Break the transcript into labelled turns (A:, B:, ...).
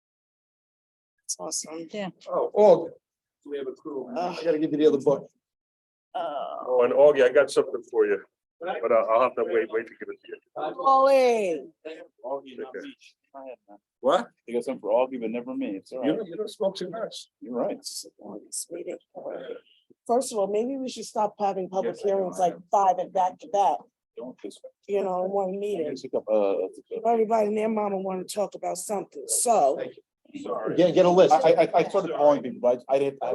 A: That's awesome.
B: Oh, Augie. We have a crew. I gotta give you the other book.
A: Oh,
C: Oh, and Augie, I got something for you, but uh, I'll I'll have to wait, wait to give it to you.
A: Ollie.
D: Augie, not
C: Okay.
D: me. Go ahead, man.
B: What?
D: They got something for Augie, but never me. It's all
C: You
D: right.
C: don't, you don't smoke too much.
D: You're right.
A: Sweetie. First of all, maybe we should stop having public
D: Yes, I know,
A: hearings
D: I
A: like five at back to back,
D: Don't this.
A: you know, in one meeting.
D: Pick up, uh, uh,
A: Everybody and their mama want to talk about something, so.
D: Sorry.
B: Get, get a list.
D: I, I, I saw the polling people, but I I didn't, I